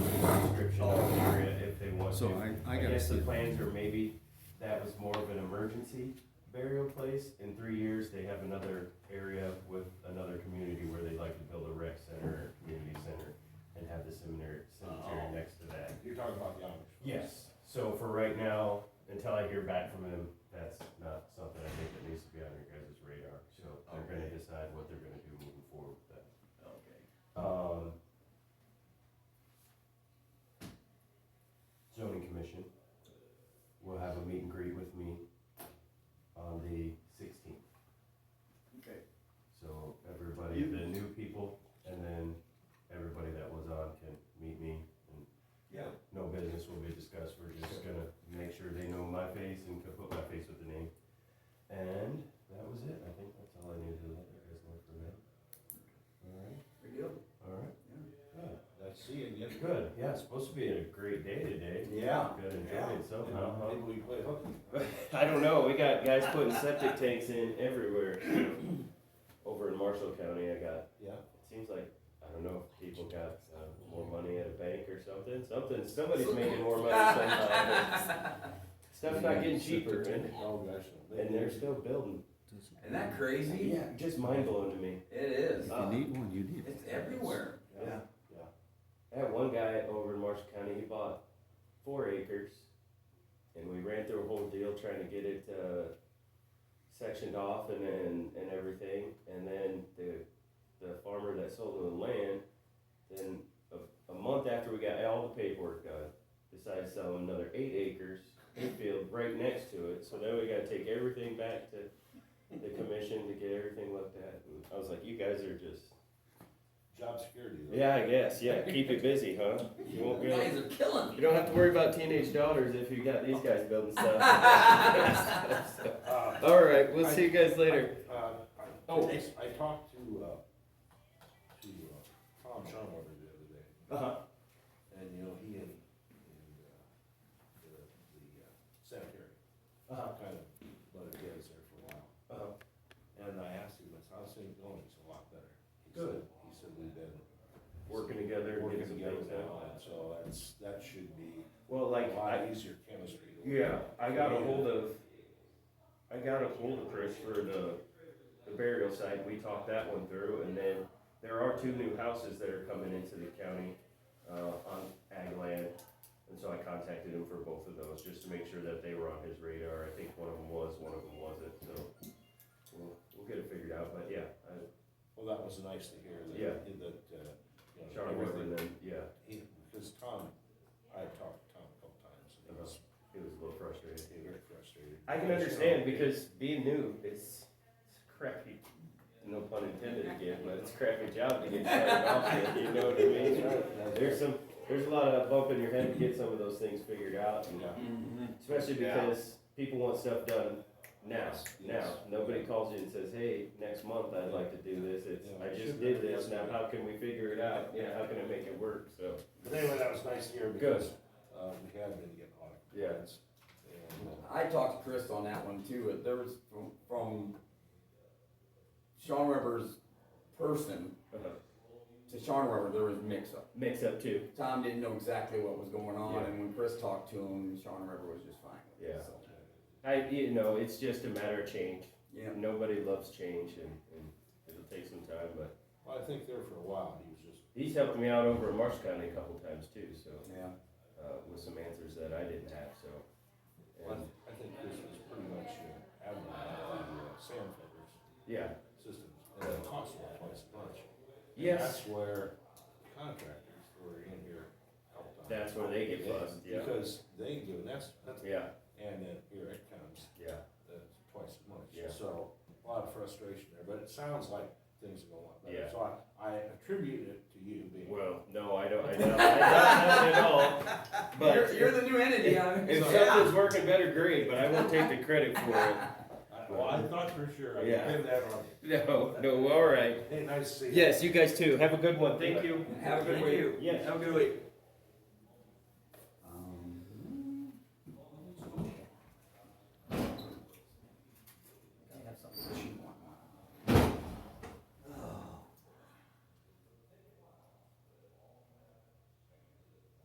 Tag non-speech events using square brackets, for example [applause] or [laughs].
a restriction on the area if they want So to. I, I I gotta guess the see. it. plans are maybe that was more of an emergency burial place. In three years, they have another area with another community where they'd like to build a rec center, or community center, and have the seminary, cemetery Oh. next to that. You're talking about the Amish. Yes, so for right now, until I hear back from them, that's not something I think that needs to be on your guys' radar. So they're gonna Okay. decide what they're gonna do moving forward with that. Okay. Um, zoning commission will have a meet and greet with me on the sixteenth. Okay. So everybody, the new people, and then everybody that was on can meet me and Yeah, no business will be discussed, we're just gonna make sure they know my face and can put my face with the name. And that was it, I think that's all I needed to let you guys know for now. Alright, pretty good. alright, yeah, That's seeing you. good, yeah, it's supposed to be a great day today. Yeah. Gotta enjoy Yeah. it somehow, huh? Maybe we play hooky. [laughs] I don't know. We got guys putting septic tanks in everywhere. Over in Marshall County, I got. Yeah. It seems like I don't know if people got uh, more money at a bank or something. Something. Somebody's making more money somehow. but Stuff's not getting cheaper, and, Oh, gosh. and they're still building. Doesn't Isn't that matter. crazy? just mind blowing to me. It is. If you need one, you need one. It's everywhere. Yeah. I had one guy over in Marshall County, he bought four acres, and we ran through a whole deal trying to get it, uh, sectioned off and then, and everything, and then the, the farmer that sold him the land, then a, a month after we got all the paperwork done, decided to sell him another eight acres, in field right next to it, so then we gotta take everything back to the commission to get everything looked at, and I was like, you guys are just Job security. though. yeah, I guess. Yeah, keep it busy, huh? You won't You be. able- guys are killing You me. don't have to worry about teenage daughters if you got these guys building stuff. [laughs] Uh, All right, we'll see you guys later. uh, I- Oh. I talked to, uh, to, uh, Tom Shumway the other day. Uh-huh. And, you know, he and, and, uh, the, the uh, secretary Uh-huh. kind of butted heads there for a while. Uh-huh. And I asked him, I said, how's things going? It's a lot better. He said- Good. He said, we've been. Working together, and Working getting some together things done. now, and so that's, that should be Well, a like, I, lot easier chemistry. to work yeah, I got a Yeah. hold of, I got a hold of Chris for the, the burial site. We talked that one through, and then there are two new houses that are coming into the county uh, on ag land. And so I contacted him for both of those just to make sure that they were on his radar. I think one of them was, one of them wasn't. So we'll, we'll get it figured out. But yeah, I, Well, that was nice to hear that, Yeah. that, uh, you know. Sean everything- Weber, and then yeah, he- Because Tom, I talked to Tom a couple times, and he was, he was a little frustrated. he was very frustrated. Uh-huh. I can understand [laughs] because being new, it's, it's a crappy, no pun intended again, but it's a crappy job to get started off with, you know what I mean? [laughs] There's some, there's a lot of bump in your head to get some of those things figured out, and Yeah. Mhm. especially Yeah. because people want stuff done now, now. Yes. Nobody calls you and says, hey, next month I'd like to do this, it's, Yeah. I just Should did be. this, now how can we figure it out? Yeah, how can I make it work, so, But anyway, that was nice to hear because, uh, we have been getting a lot of Yeah. complaints. And, uh, I talked to Chris on that one too. but There was from, from Sean Weber's person uh, to Sean Weber, there was mix up. mix up too. Tom didn't know exactly what was going on, Yeah. and when Chris talked to him, Sean Weber was just fine with Yeah. it. So, I, you know, it's just a matter of change. yeah. Nobody loves change, and, and it'll take some time. But Well, I think there for a while, he was just, he's helped me out over in Marsh County a couple times too, so Yeah. uh, with some answers that I didn't have. So, I and, I think this was pretty much, uh, admirable, the uh, sand filters yeah, systems, and it cost them twice as much. And yes, That's where contractors were in here a couple times. that's where they get Yeah, fussed. Yeah, Because they give an estimate, yeah, and then here it comes, yeah. uh, twice as much. Yeah. So, a lot of frustration there, but it sounds like things are going a lot better. Yeah. So I, I attribute it to you being. Well, no, I don't. I don't. I don't [laughs] have it at all. But you're, you're the [laughs] new entity. I'm if something's working better, great. But I won't take the credit for it. [laughs] I- Well, I thought for sure, I Yeah. did that on, No, no. All right. hey, nice to see you. Yes, you guys too. Have a good one. Thank you. Have a good Thank week. you. Yes. Have a good week. Um, hmm.